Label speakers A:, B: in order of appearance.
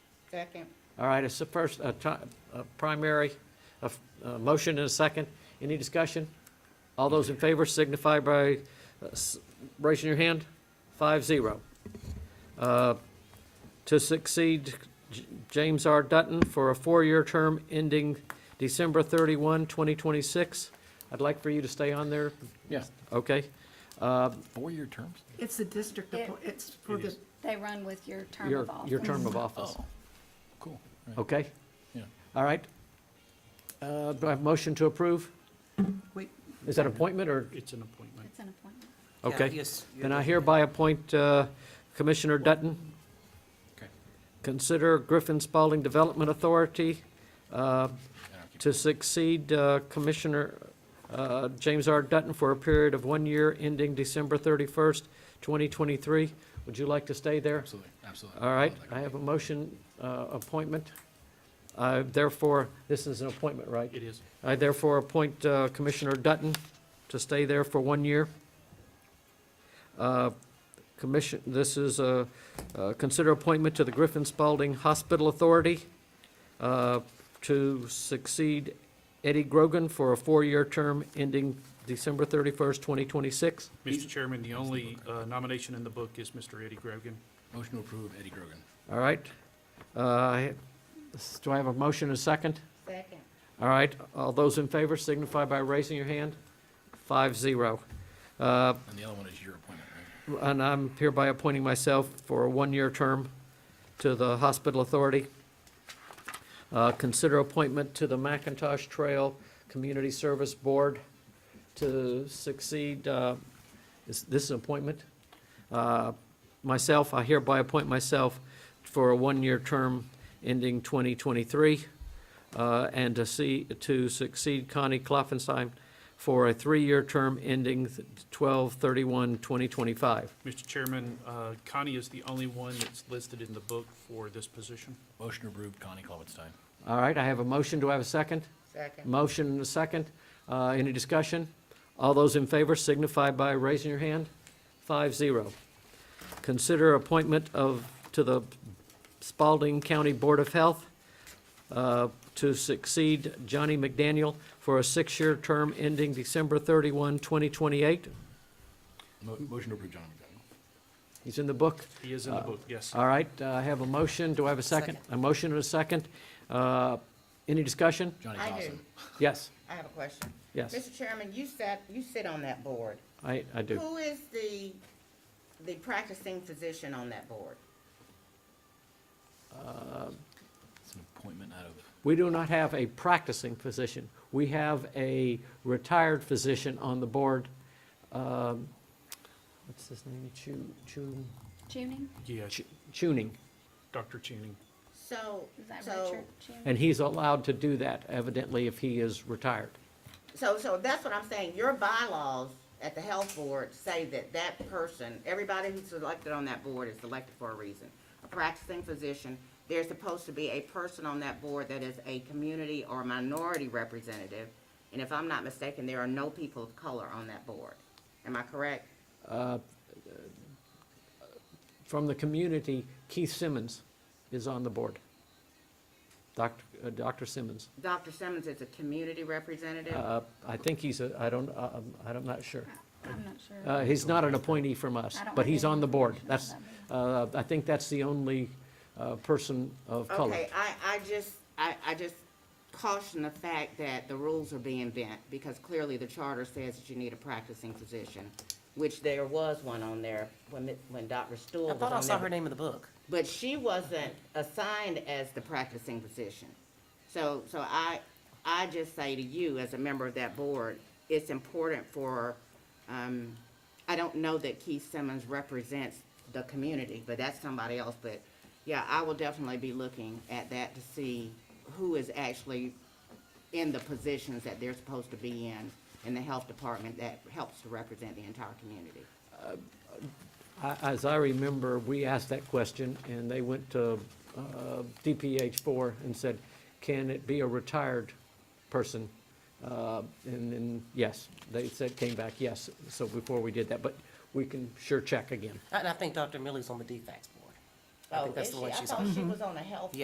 A: Second.
B: All right, it's the first, a ti- a primary, a f- a motion and a second. Any discussion? All those in favor signify by uh, s- raising your hand. Five zero. Uh, To succeed J- James R. Dutton for a four-year term ending December 31, 2026. I'd like for you to stay on there,
C: Yeah,
B: okay? Uh,
C: four-year terms?
D: It's the district, appo- it's for
C: It
D: the,
C: is.
A: They run with your term
B: Your,
A: of office.
B: your term of office,
C: Oh, cool. Right.
B: okay?
C: Yeah.
B: All right. Uh, Do I have a motion to approve?
D: wait,
B: Is that appointment or,
E: It's an appointment.
A: It's an appointment.
B: okay. Then I hereby appoint uh, Commissioner Dutton.
C: Okay.
B: Consider Griffin Spaulding Development Authority uh,
C: I don't keep-
B: to succeed uh, Commissioner uh, James R. Dutton for a period of one year ending December 31st, 2023. Would you like to stay there?
C: Absolutely, absolutely.
B: All right,
C: I'd like
B: I
C: to
B: have
C: keep-
B: a motion uh, appointment. Uh, Therefore, this is an appointment, right?
E: It is.
B: I therefore appoint uh, Commissioner Dutton to stay there for one year. Uh, Commission, this is a, uh, consider appointment to the Griffin Spalding Hospital Authority uh, to succeed Eddie Grogan for a four-year term ending December 31st, 2026.
E: Mr. Chairman, the only uh, nomination in the book is Mr. Eddie Grogan.
C: Motion to approve Eddie Grogan.
B: All right. Uh, Do I have a motion and a second?
A: Second.
B: All right, all those in favor signify by raising your hand. Five zero. Uh,
C: And the other one is your appointment, right?
B: And I'm hereby appointing myself for a one-year term to the Hospital Authority. Uh, Consider appointment to the McIntosh Trail Community Service Board to succeed, uh, is this an appointment? Uh, Myself, I hereby appoint myself for a one-year term ending 2023, uh, and to see, to succeed Connie Kloffenstein for a three-year term ending 12/31/2025.
E: Mr. Chairman, uh, Connie is the only one that's listed in the book for this position.
C: Motion to approve Connie Klobuchar.
B: All right, I have a motion, do I have a second?
A: Second.
B: Motion and a second, Uh, any discussion? All those in favor signify by raising your hand. Five zero. Consider appointment of, to the Spalding County Board of Health uh, to succeed Johnny McDaniel for a six-year term ending December 31, 2028.
C: Mo- Motion to approve John McDonald.
B: He's in the book.
E: He is in the book, yes.
B: All right, uh, I have a motion, do I have a second? A motion and a second. Uh, Any discussion?
C: Johnny
F: I do.
C: Dawson.
B: Yes,
F: I have a question.
B: yes,
F: Mr. Chairman, you sat, you sit on that board.
B: I, I do.
F: Who is the, the practicing physician on that board?
C: It's an appointment out of,
B: We do not have a practicing physician. We have a retired physician on the board. Um, What's his name? Chu, Chu,
A: Tuning,
E: Yeah,
B: Chu- Chuning.
E: Dr. Tuning.
F: So,
A: is that right,
F: so,
A: Chair? Tuning?
B: And he's allowed to do that evidently if he is retired.
F: so, so that's what I'm saying. Your bylaws at the health board say that that person, everybody who's elected on that board is elected for a reason. A practicing physician, there's supposed to be a person on that board that is a community or minority representative. And if I'm not mistaken, there are no people of color on that board. Am I correct?
B: From the community, Keith Simmons is on the board. Dr., uh, Dr. Simmons.
F: Dr. Simmons is a community representative?
B: Uh, I think he's a, I don't, uh, um, I'm not sure.
A: I'm not sure.
B: Uh, He's not an appointee from us,
A: I don't
B: but
A: have
B: he's
A: any
B: on the board.
A: information
B: That's,
A: about
B: uh, I think that's the only uh, person of color.
F: Okay, I, I just, I, I just caution the fact that the rules are being bent, because clearly the charter says that you need a practicing physician, which there was one on there when, it- when Dr. Stool
G: I
F: was
G: thought I
F: on
G: saw
F: there.
G: her name in the book.
F: But she wasn't assigned as the practicing physician. So, so I, I just say to you, as a member of that board, it's important for, um, I don't know that Keith Simmons represents the community, but that's somebody else, but, yeah, I will definitely be looking at that to see who is actually in the positions that they're supposed to be in, in the health department that helps to represent the entire community.
B: I- As I remember, we asked that question, and they went to uh, DPH four and said, can it be a retired person? Uh, And then, yes, they said, came back, yes, so before we did that, but we can sure check again.
G: And I think Dr. Millie's on the DFAX board. I
F: Oh,
G: think that's
F: is
G: the one
F: she? I
G: she's
F: thought
G: on.
F: she was on the health